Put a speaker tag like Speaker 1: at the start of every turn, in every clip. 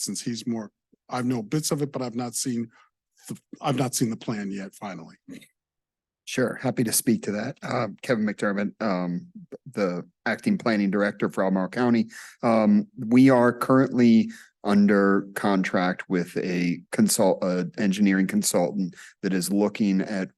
Speaker 1: since he's more, I've know bits of it, but I've not seen, the I've not seen the plan yet finally.
Speaker 2: Sure, happy to speak to that. Um, Kevin McDermott, um, the acting planning director for Albemarle County. Um, we are currently under contract with a consult, uh, engineering consultant that is looking at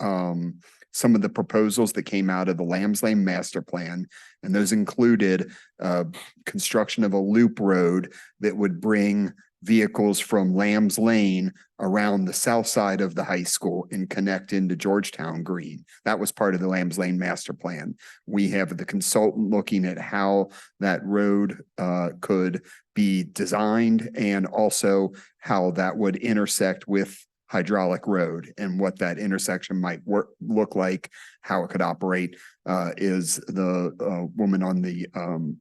Speaker 2: um, some of the proposals that came out of the Lambs Lane Master Plan. And those included uh, construction of a loop road that would bring vehicles from Lambs Lane around the south side of the high school and connect into Georgetown Green. That was part of the Lambs Lane Master Plan. We have the consultant looking at how that road uh, could be designed and also how that would intersect with hydraulic road and what that intersection might work, look like, how it could operate uh, is the uh, woman on the um,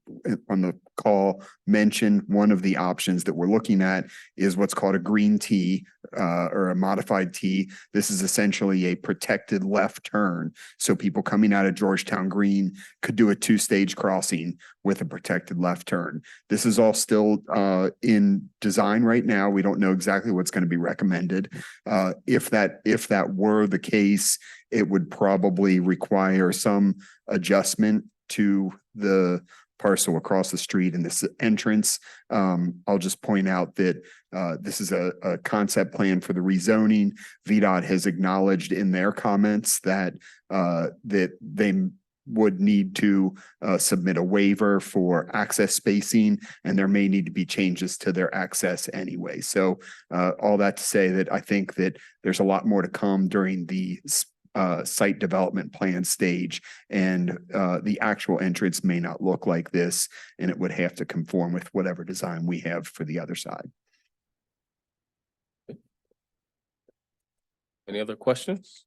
Speaker 2: on the call mentioned one of the options that we're looking at is what's called a green tee uh, or a modified T. This is essentially a protected left turn. So people coming out of Georgetown Green could do a two-stage crossing with a protected left turn. This is all still uh, in design right now. We don't know exactly what's going to be recommended. Uh, if that if that were the case, it would probably require some adjustment to the parcel across the street and this entrance. Um, I'll just point out that uh, this is a, a concept plan for the rezoning. VDOT has acknowledged in their comments that, uh, that they would need to, uh, submit a waiver for access spacing, and there may need to be changes to their access anyway. So, uh, all that to say that I think that there's a lot more to come during the, s- uh, site development plan stage, and, uh, the actual entrance may not look like this, and it would have to conform with whatever design we have for the other side.
Speaker 3: Any other questions?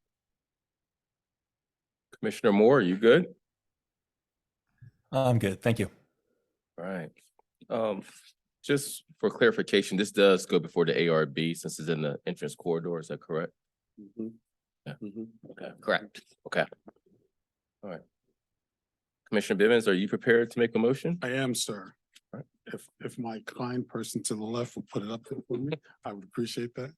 Speaker 3: Commissioner Moore, are you good?
Speaker 4: I'm good. Thank you.
Speaker 3: All right. Um, just for clarification, this does go before the ARB since it's in the entrance corridor, is that correct? Yeah. Okay, correct. Okay. All right. Commissioner Bivens, are you prepared to make a motion?
Speaker 1: I am, sir.
Speaker 3: Right.
Speaker 1: If, if my kind person to the left will put it up there for me, I would appreciate that.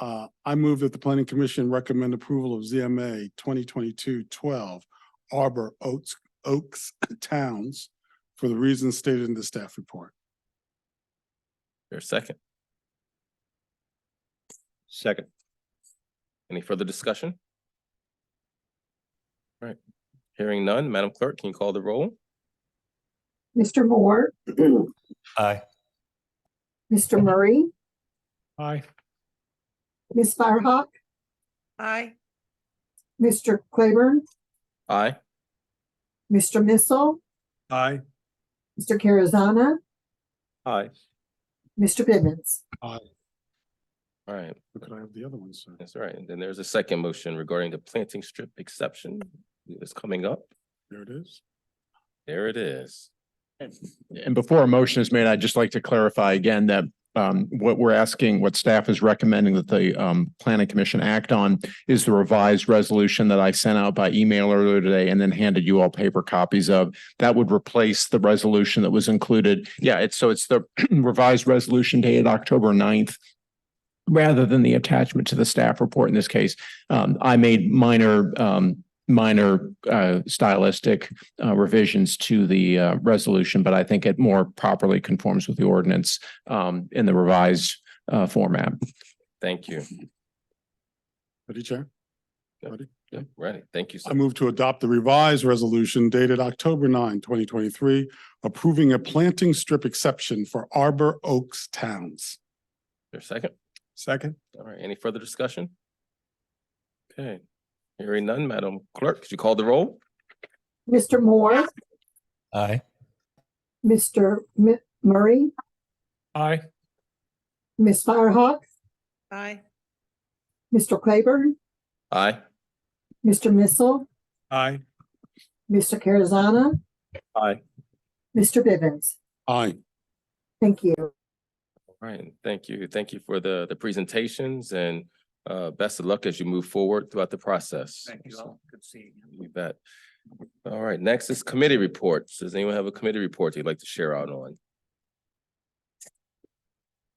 Speaker 1: Uh, I move that the planning commission recommend approval of ZMA 2022-12 Arbor Oaks, Oaks Towns for the reasons stated in the staff report.
Speaker 3: Your second.
Speaker 5: Second.
Speaker 3: Any further discussion? All right. Hearing none, Madam Clerk, can you call the roll?
Speaker 6: Mr. Moore,
Speaker 4: Aye.
Speaker 6: Mr. Murray,
Speaker 5: Aye.
Speaker 6: Ms. Firehawk,
Speaker 7: Aye.
Speaker 6: Mr. Claiborne,
Speaker 3: Aye.
Speaker 6: Mr. Missile,
Speaker 5: Aye.
Speaker 6: Mr. Carazana,
Speaker 5: Aye.
Speaker 6: Mr. Bivens.
Speaker 3: All right.
Speaker 1: Could I have the other one, sir?
Speaker 3: That's right. And then there's a second motion regarding the planting strip exception. It's coming up.
Speaker 1: There it is.
Speaker 3: There it is.
Speaker 5: And before a motion is made, I'd just like to clarify again that um, what we're asking, what staff is recommending that the um, planning commission act on is the revised resolution that I sent out by email earlier today and then handed you all paper copies of. That would replace the resolution that was included. Yeah, it's, so it's the revised resolution dated October 9th rather than the attachment to the staff report in this case. Um, I made minor, um, minor uh, stylistic uh, revisions to the uh, resolution, but I think it more properly conforms with the ordinance um, in the revised uh, format.
Speaker 3: Thank you.
Speaker 1: Ready, Chair?
Speaker 3: Yep.
Speaker 1: Ready?
Speaker 3: Yep, Ready. Thank you. sir.
Speaker 1: I move to adopt the revised resolution dated October 9, 2023, approving a planting strip exception for Arbor Oaks Towns.
Speaker 3: Your second.
Speaker 1: Second.
Speaker 3: All right. Any further discussion? Okay. Hearing none, Madam Clerk, could you call the roll?
Speaker 6: Mr. Moore,
Speaker 4: Aye.
Speaker 6: Mr. Mi- Murray,
Speaker 5: Aye.
Speaker 6: Ms. Firehawk,
Speaker 7: Aye.
Speaker 6: Mr. Claiborne,
Speaker 3: Aye.
Speaker 6: Mr. Missile,
Speaker 5: Aye.
Speaker 6: Mr. Carazana.
Speaker 5: Aye.
Speaker 6: Mr. Bivens.
Speaker 1: Aye.
Speaker 6: Thank you.
Speaker 3: All right. Thank you. Thank you for the, the presentations and uh, best of luck as you move forward throughout the process.
Speaker 8: Thank you all. Good seeing you.
Speaker 3: You bet. All right. Next is committee reports. Does anyone have a committee report they'd like to share out on?